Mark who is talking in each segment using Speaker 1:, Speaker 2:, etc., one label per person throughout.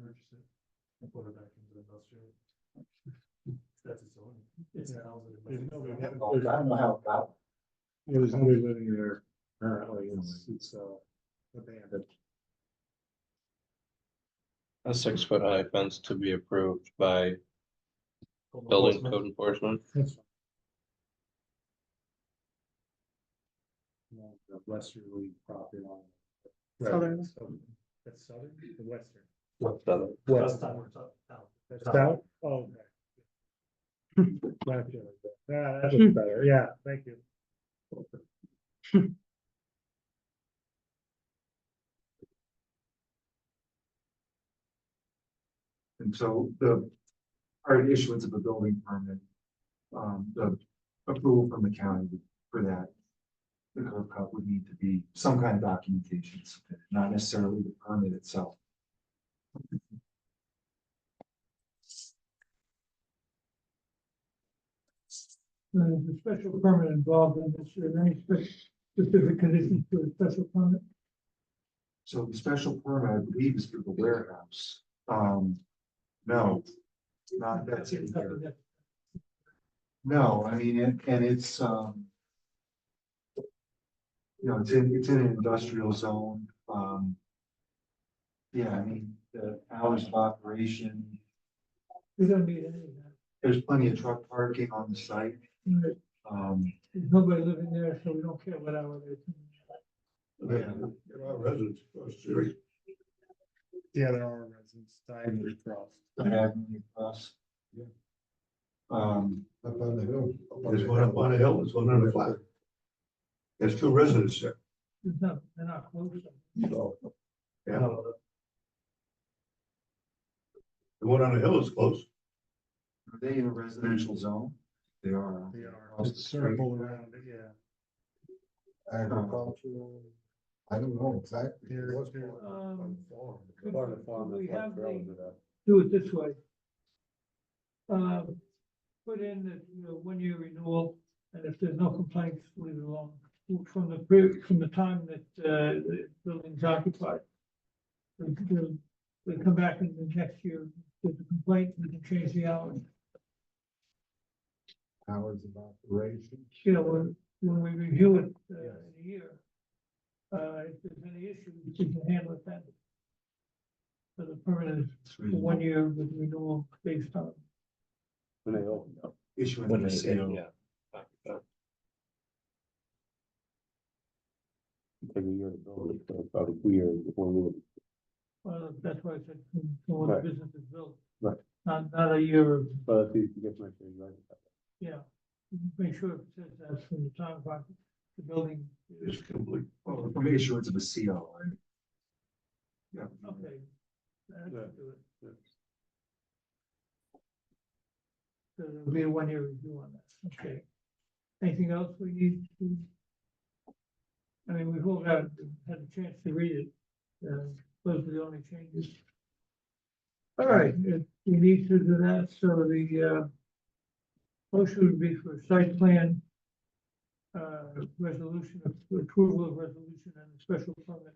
Speaker 1: it and put it back into the industrial. That's its own, it's housing.
Speaker 2: There's no- we haven't-
Speaker 3: I don't know how about.
Speaker 2: Yeah, There's nobody living there currently, it's, it's, uh, abandoned.
Speaker 4: A six foot high fence to be approved by building code enforcement.
Speaker 2: That's fine. Yeah, The westerly property line. Right,
Speaker 5: Southern.
Speaker 2: That's southern, the western.
Speaker 4: What's that?
Speaker 1: Last time we're talking, now,
Speaker 2: That's
Speaker 1: South.
Speaker 2: south, oh, okay. Gotcha. Yeah, that looks better, yeah, thank you.
Speaker 3: And so the, our issuance of a building permit, um, the approval from the county for that. The curb cut would need to be some kind of documentation, submitted, not necessarily the permit itself.
Speaker 6: Uh, the, the special permit involved in this, are there any spe- specific conditions to the special permit?
Speaker 3: So the special permit, I believe, is for the warehouse. Um, no, not Uh, that's in here. No, I mean, and, and it's, um. You know, it's in, it's in an industrial zone, um. Yeah, I mean, the hours of operation,
Speaker 6: We don't need any of that.
Speaker 3: there's plenty of truck parking on the site,
Speaker 6: There's
Speaker 3: um.
Speaker 6: nobody living there, so we don't care what hour they're.
Speaker 3: yeah.
Speaker 2: Yeah, there are residents, diagonally across.
Speaker 3: Diagonally across. Um,
Speaker 7: Up on the hill.
Speaker 1: There's one up on the hill, there's one on the flat.
Speaker 7: There's two residents there,
Speaker 6: There's not, they're not close.
Speaker 7: so
Speaker 1: you know,
Speaker 7: the one on the hill is close.
Speaker 3: are they in a residential zone? They are.
Speaker 2: They are,
Speaker 3: Across the
Speaker 2: just
Speaker 3: street.
Speaker 2: circle around, it, yeah.
Speaker 7: Agricultural. I don't know exactly.
Speaker 2: Here,
Speaker 7: what's
Speaker 2: here.
Speaker 7: going on.
Speaker 6: Um,
Speaker 7: Farm.
Speaker 6: could- could we have the, do it this way? Um, put in the, you know, one-year renewal, and if there's no complaints, leave it alone. From the, pre- from the time that, uh, the building's occupied. We could do- we come back in the next year, with a complaint, we can change the hours.
Speaker 7: Hours of operation.
Speaker 6: you know, when, when we review it uh, in a year, uh, if there's any issues, we can handle it then. For the permanent, for
Speaker 4: Mm-hmm.
Speaker 6: one year with renewal based on.
Speaker 4: When they open up.
Speaker 3: Issuing a CO.
Speaker 4: Yeah. Every year, it's about a year before we would
Speaker 6: Well, that's why I said, from from when
Speaker 4: Right.
Speaker 6: the business is built.
Speaker 4: Right.
Speaker 6: Not, not a year of,
Speaker 4: But if you can get my thing right.
Speaker 6: yeah, make sure it says that's from the time of the building.
Speaker 7: It's complete.
Speaker 3: Well, from issuance of a CO. right? Yeah.
Speaker 6: Okay. That
Speaker 4: Yeah,
Speaker 6: should do it. So There'll be a one-year review on that, okay. Anything else we need to? I mean, we've all got, had a chance to read it, uh, those are the only changes. All right, if we need to do that, so the, uh, motion would be for site plan, uh, resolution, approval of resolution and special permit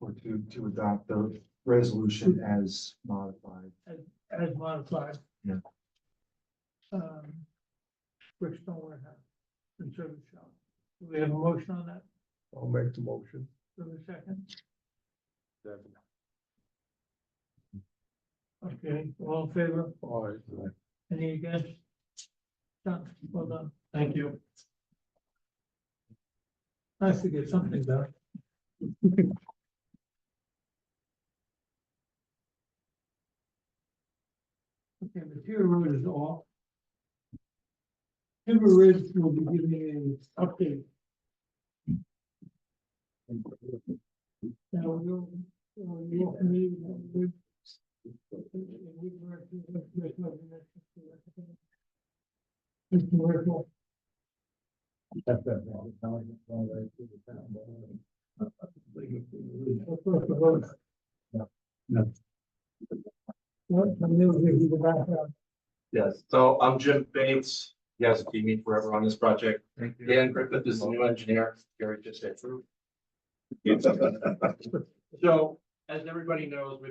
Speaker 3: Or to, to adopt the resolution as modified.
Speaker 6: as modified.
Speaker 3: Yeah.
Speaker 6: Um, Brixton Warehouse and Service Shop. Do we have a motion on that?
Speaker 7: I'll make the motion.
Speaker 6: Do we have a second? Okay, all in favor?
Speaker 7: All right.
Speaker 6: Any against? Done, well done. Thank you. Nice to get something done. Okay, Material Road is off. Timber Ridge will be giving an update. Now, we'll, we'll, we'll, we Mr. Rickle, first of all.
Speaker 3: No.
Speaker 6: What, can you give you the background?
Speaker 8: Yes, so I'm Jim Bates. Yes, be me forever on this project. Dan Griffith is the new engineer. Gary just said true. So as everybody knows, we've